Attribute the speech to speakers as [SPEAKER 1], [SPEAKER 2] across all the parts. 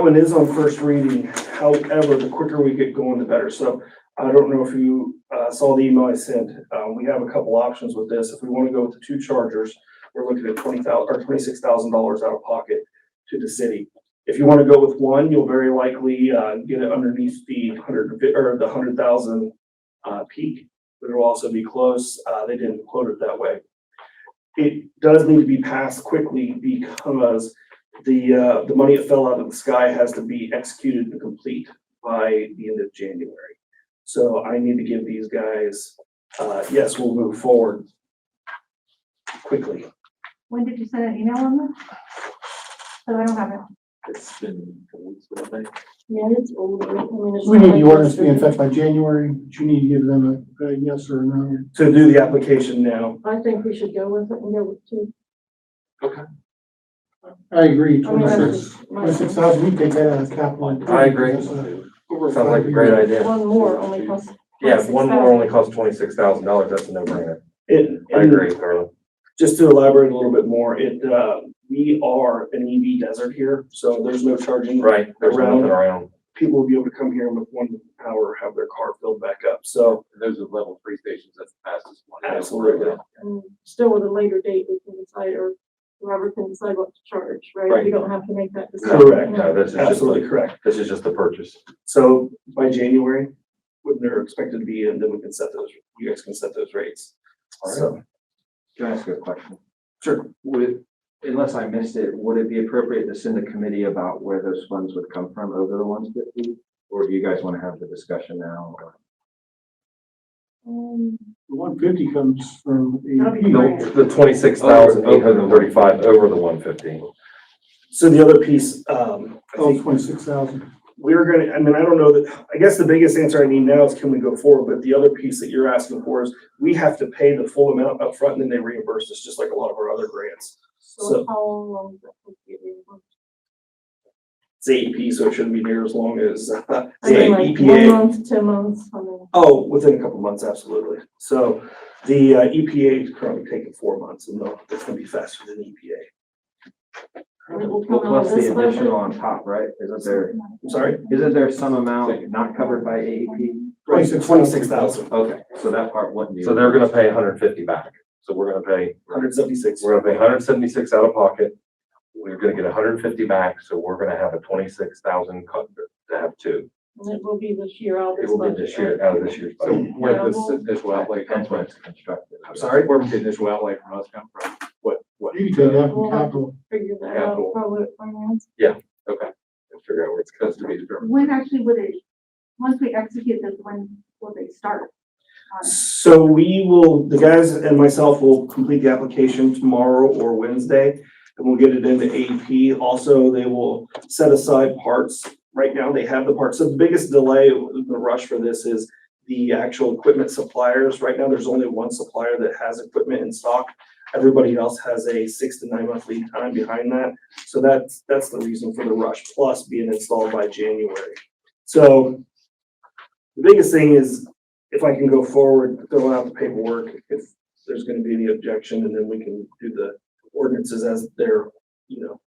[SPEAKER 1] one is on first reading, however, the quicker we get going, the better. So I don't know if you uh, saw the email I sent. Uh, We have a couple options with this. If we want to go with the two chargers, we're looking at twenty thousand, or twenty-six thousand dollars out of pocket to the city. If you want to go with one, you'll very likely uh, get it underneath the hundred, and fif- or the hundred thousand uh, peak. But it'll also be close. Uh, They didn't quote it that way. It does need to be passed quickly because the, uh, the money that fell out of the sky has to be executed and complete by the end of January. So I need to give these guys, uh, yes, we'll move forward quickly.
[SPEAKER 2] When did you send an email on this? So I don't have it.
[SPEAKER 3] It's been a week, I think.
[SPEAKER 4] Yeah, it's old. I mean, it's
[SPEAKER 5] We need the
[SPEAKER 4] like-
[SPEAKER 5] ordinance to be in effect by January, but you need to give them a, a yes or a no.
[SPEAKER 1] To do the application now,
[SPEAKER 4] I think we should go with it and go with two.
[SPEAKER 5] I agree,
[SPEAKER 4] I mean, that's
[SPEAKER 5] twenty-six,
[SPEAKER 4] just my-
[SPEAKER 5] twenty-six thousand, we take that out of capital. improvement.
[SPEAKER 3] I agree.
[SPEAKER 5] That's a-
[SPEAKER 3] Sounds
[SPEAKER 5] over
[SPEAKER 3] like a
[SPEAKER 5] five
[SPEAKER 3] great
[SPEAKER 5] years.
[SPEAKER 3] idea.
[SPEAKER 4] One more only costs.
[SPEAKER 3] Yeah, one more only costs twenty-six thousand dollars, that's a no-brainer.
[SPEAKER 1] it,
[SPEAKER 3] I agree, Carla.
[SPEAKER 1] just to elaborate a little bit more, it, uh, we are an EV desert here, so there's no charging.
[SPEAKER 3] Right, there's nothing around.
[SPEAKER 1] People will be able to come here and with one hour, have their car filled back up, so
[SPEAKER 6] Those are level three stations, that's the fastest one.
[SPEAKER 1] absolutely.
[SPEAKER 4] And still with a later date, we can decide or whoever can decide what to charge, right? We
[SPEAKER 3] Right.
[SPEAKER 4] don't have to make that decision.
[SPEAKER 1] Correct.
[SPEAKER 3] No, this is just,
[SPEAKER 1] Absolutely
[SPEAKER 3] like-
[SPEAKER 1] correct.
[SPEAKER 3] this is just the purchase.
[SPEAKER 1] So by January, when they're expected to be, and then we can set those, you guys can set those rates. So,
[SPEAKER 6] Can I ask you a question?
[SPEAKER 1] sure,
[SPEAKER 6] Would, unless I missed it, would it be appropriate to send a committee about where those funds would come from over the ones that we? Or do you guys want to have the discussion now? or-
[SPEAKER 4] Um,
[SPEAKER 5] The one fifty comes from
[SPEAKER 2] That'll be
[SPEAKER 5] the,
[SPEAKER 2] great.
[SPEAKER 3] The twenty-six thousand eight hundred and thirty-five over the one fifteen.
[SPEAKER 1] so the other piece, um, I
[SPEAKER 5] oh,
[SPEAKER 1] think
[SPEAKER 5] twenty-six thousand.
[SPEAKER 1] we're gonna, I mean, I don't know that, I guess the biggest answer I need now is can we go forward? But the other piece that you're asking for is, we have to pay the full amount upfront and then they reimburse us, just like a lot of our other grants. So-
[SPEAKER 4] So how long does that take to get reimbursed?
[SPEAKER 1] It's AEP, so it shouldn't be near as long as, uh,
[SPEAKER 4] I mean, like One
[SPEAKER 1] EPA.
[SPEAKER 4] month, two months, I mean,
[SPEAKER 1] Oh, within a couple months, absolutely. So the uh, EPA is currently taking four months and they'll- it's gonna be faster than E EPA.
[SPEAKER 4] and it will come out
[SPEAKER 6] Plus
[SPEAKER 4] of this
[SPEAKER 6] the additional
[SPEAKER 4] budget.
[SPEAKER 6] on top, right? Isn't there,
[SPEAKER 1] I'm sorry?
[SPEAKER 6] isn't there some amount not covered by E AEP?
[SPEAKER 5] Twenty-six
[SPEAKER 1] Twenty-six thousand.
[SPEAKER 6] Okay, so that part wouldn't be.
[SPEAKER 3] So they're gonna pay hundred and fifty back. So we're gonna pay,
[SPEAKER 1] Hundred seventy-six.
[SPEAKER 3] we're gonna pay hundred and seventy-six out of pocket. We're gonna get hundred and fifty back, so we're gonna have a twenty-six thousand cut to have two.
[SPEAKER 4] And it will be this year, all
[SPEAKER 3] It
[SPEAKER 4] this
[SPEAKER 3] will be
[SPEAKER 4] budget.
[SPEAKER 3] this year, out of this year's
[SPEAKER 7] So
[SPEAKER 3] budget.
[SPEAKER 7] where does this initial outlay come
[SPEAKER 6] That's when
[SPEAKER 7] from?
[SPEAKER 6] it's constructed.
[SPEAKER 1] I'm sorry?
[SPEAKER 7] Where does the initial outlay from us come from? What, what?
[SPEAKER 5] You can take that from capital.
[SPEAKER 4] Figure that
[SPEAKER 7] Capital.
[SPEAKER 4] out, probably at finance.
[SPEAKER 7] We'll Figure out where it's supposed to be determined.
[SPEAKER 2] When actually would it, once we execute this, when will they start? on it?
[SPEAKER 1] So we will, the guys and myself will complete the application tomorrow or Wednesday, and we'll get it into AEP. Also, they will set aside parts. Right now, they have the parts. So the biggest delay, the rush for this is the actual equipment suppliers. Right now, there's only one supplier that has equipment in stock. Everybody else has a six to nine month lead time behind that. So that's, that's the reason for the rush, plus being installed by January. So the biggest thing is if I can go forward, fill out the paperwork, if there's gonna be any objection, and then we can do the ordinances as their, you know,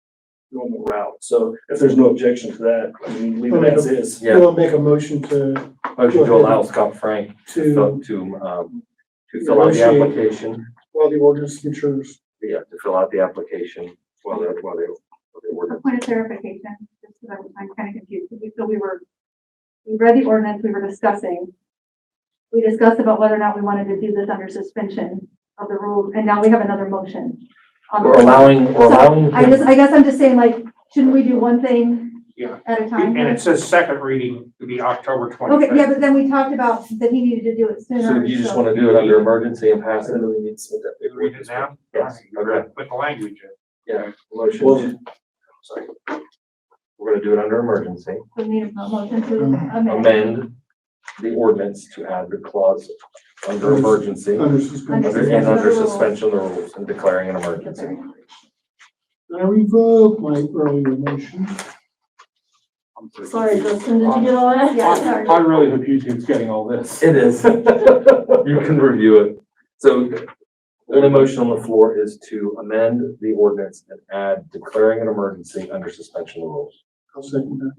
[SPEAKER 1] normal route. So if there's no objection to that, I mean, leave it as is.
[SPEAKER 3] Yeah.
[SPEAKER 5] We'll make a motion to,
[SPEAKER 3] Motion to allow Scott Frank to,
[SPEAKER 5] to,
[SPEAKER 3] fill- to, um, to fill out the
[SPEAKER 5] Negotiate.
[SPEAKER 3] application.
[SPEAKER 5] while the ordinance matures.
[SPEAKER 3] Yeah, to fill out the application while they're, while they, while they
[SPEAKER 2] A
[SPEAKER 3] work.
[SPEAKER 2] point of clarification, just because I'm, I'm kind of confused, because we, so we were, we read the ordinance, we were discussing. We discussed about whether or not we wanted to do this under suspension of the rules, and now we have another motion. on the
[SPEAKER 3] We're allowing,
[SPEAKER 2] So,
[SPEAKER 3] we're allowing.
[SPEAKER 2] I just, I guess I'm just saying, like, shouldn't we do one thing
[SPEAKER 8] Yeah.
[SPEAKER 2] at a time?
[SPEAKER 8] And it says second reading to be October
[SPEAKER 2] Okay,
[SPEAKER 8] twenty-fifth.
[SPEAKER 2] yeah, but then we talked about that he needed to do it sooner.
[SPEAKER 3] So you just wanna do it under emergency and pass
[SPEAKER 1] So
[SPEAKER 3] it?
[SPEAKER 1] then we need to submit that paperwork.
[SPEAKER 8] Read it now?
[SPEAKER 3] Yes, okay.
[SPEAKER 8] Put the language in.
[SPEAKER 3] Motion,
[SPEAKER 1] Well-
[SPEAKER 3] sorry. We're gonna do it under emergency,
[SPEAKER 2] So we need a motion to
[SPEAKER 3] Mm-hmm.
[SPEAKER 2] amend
[SPEAKER 3] amend the ordinance to add the clause under emergency
[SPEAKER 5] Under suspension.
[SPEAKER 3] under- and under suspension of the rules and declaring an emergency.
[SPEAKER 5] I revoke my earlier motion.
[SPEAKER 4] Sorry, Justin, did you get all that?
[SPEAKER 2] Yeah, sorry.
[SPEAKER 7] I really hope YouTube's getting all this.
[SPEAKER 3] It is. You can review it. So the motion on the floor is to amend the ordinance and add declaring an emergency under suspension of the rules.
[SPEAKER 5] I'll second that.